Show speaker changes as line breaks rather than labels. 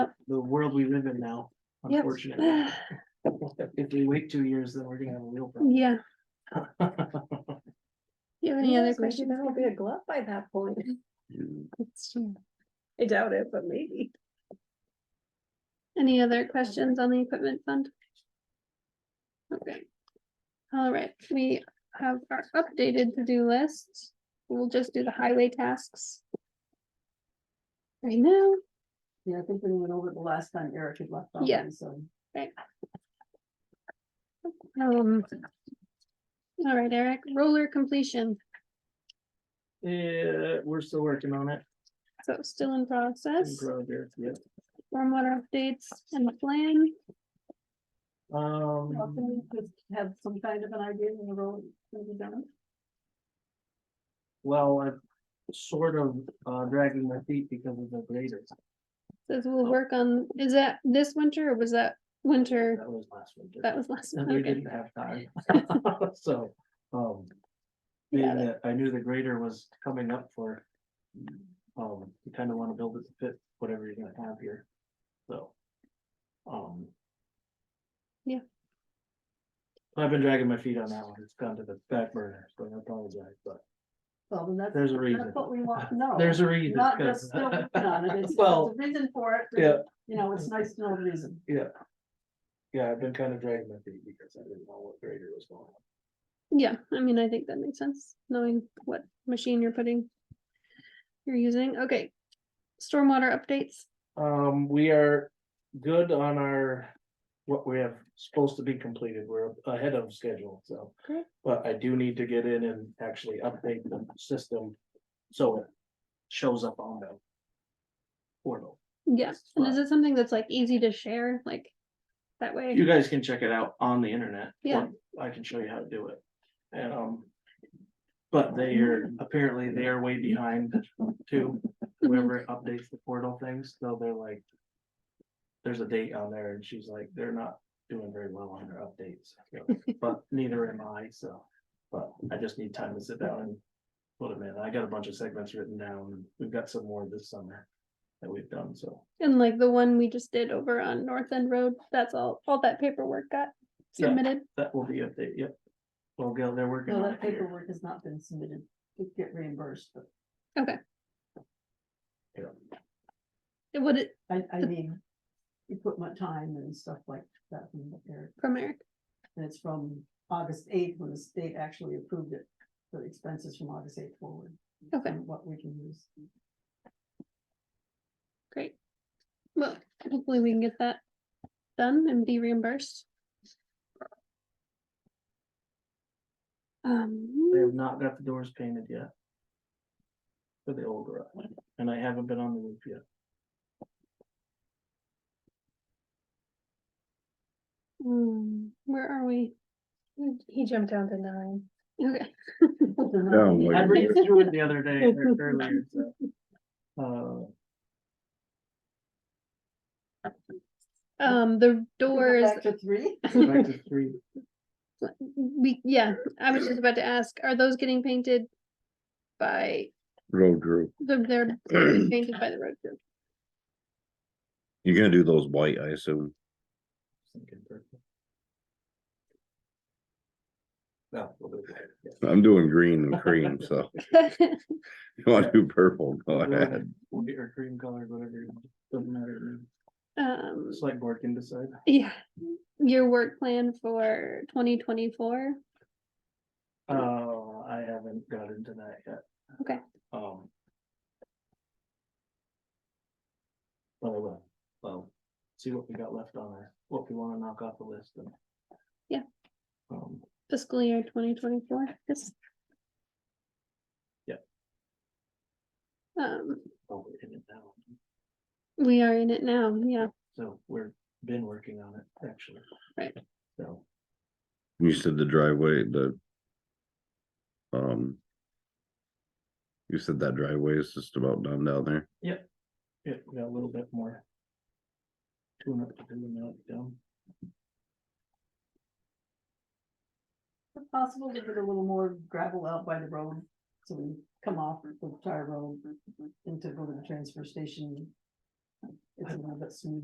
the world we live in now,
Yep.
unfortunately. If we wait two years, then we're gonna have a real problem.
Yeah, you have any other
Yes, maybe
questions?
That'll be a glove by that point.
That's true.
I doubt it, but maybe.
Any other questions on the equipment fund? Okay. All right, we have our updated to-do list. We'll just do the highway tasks. Right now,
Yeah, I think we went over the last time Eric had left.
on Yeah.
So.
um. All right, Eric, roller completion,
Yeah, we're still working on it.
so still in
in
process,
progress, yep.
stormwater updates and the plan.
Um,
Have some kind of an idea in the role. that we've done?
well, I'm sort of uh dragging my feet because of the graders.
Says we'll work on, is that this winter or was that winter?
That was last winter.
That was last.
And
one.
we
okay.
didn't have time, so, um.
Yeah,
Being that I knew the grader was coming up for. Um, you kind of want to build it to fit whatever you're gonna have here, so. Um.
Yeah.
I've been dragging my feet on that one, it's gone to the back burner, so I apologize, but
Well, then that's,
there's a reason,
that's what we want to know.
there's a reason.
Not
'cause-
just still working on it. It's
Well,
there's a reason for it.
Yeah,
but, You know, it's nice to know the reason.
yeah, I've been kind of dragging my feet because I didn't know what grader was going on.
Yeah, I mean, I think that makes sense, knowing what machine you're putting. You're using, okay. Stormwater updates,
Um, we are good on our, what we have supposed to be completed, we're ahead of schedule, so.
Great.
But I do need to get in and actually update the system, so it shows up on the portal.
yeah, and is
Right.
it something that's like easy to share, like? That
You
way,
guys can check it out on the internet. or
Yeah.
I can show you how to do it, and, um. But they are, apparently they are way behind too, whoever updates the portal things, so they're like. There's a date on there and she's like, they're not doing very well on their updates, so, but neither am I, so. But I just need time to sit down and put them in. I got a bunch of segments written down. and We've got some more this summer that we've done, so.
and like the one we just did over on North End Road, that's all, all that paperwork got
Yeah.
submitted.
That will be update, yep. Well, Gail, they're working
No,
on it
that
here.
paperwork has not been submitted. It'd get reimbursed, but
It would, it,
I, I mean, equipment time and stuff like that from Eric.
from Eric,
And it's from August eighth, when the state actually approved it, the expenses from August eighth forward.
Okay.
and What we can use.
great. Well, hopefully we can get that done and be reimbursed. Um.
They have not got the doors painted yet. For the old garage, and I haven't been on the roof yet.
Hmm, where are we?
He jumped down to nine.
Okay,
Down,
Well,
like,
I read through it the other day, or earlier, so. Uh,
um, the doors,
Back to three,
go back uh, to three,
we, yeah, I was just about to ask, are those getting painted? By
road group.
the, they're getting painted by the road crew?
You're gonna do those white, I assume.
thinking purple. No, we'll do it, yeah.
I'm doing green and cream, so you wanna do purple, go ahead.
We'll get your cream color, whatever, you want. doesn't matter, to me.
Um,
select board can decide.
yeah, your work plan for twenty twenty-four,
Uh, I haven't got into that yet.
Okay.
Um. But I will, well, see what we got left on our, what we wanna knock off the list and.
Yeah.
Um,
fiscal year twenty twenty-four, yes.
Yeah.
Um,
oh, we're in it now,
we are in it now, yeah,
so we're been working on it, actually.
Right.
So,
You said the driveway, the. Um. You said that driveway is just about done down there.
yeah, we got a little bit more. Tune up to do and knock down.
If possible to get a little more gravel out by the road, so we come off the tire road and to go to the transfer station. It's a little bit smoother.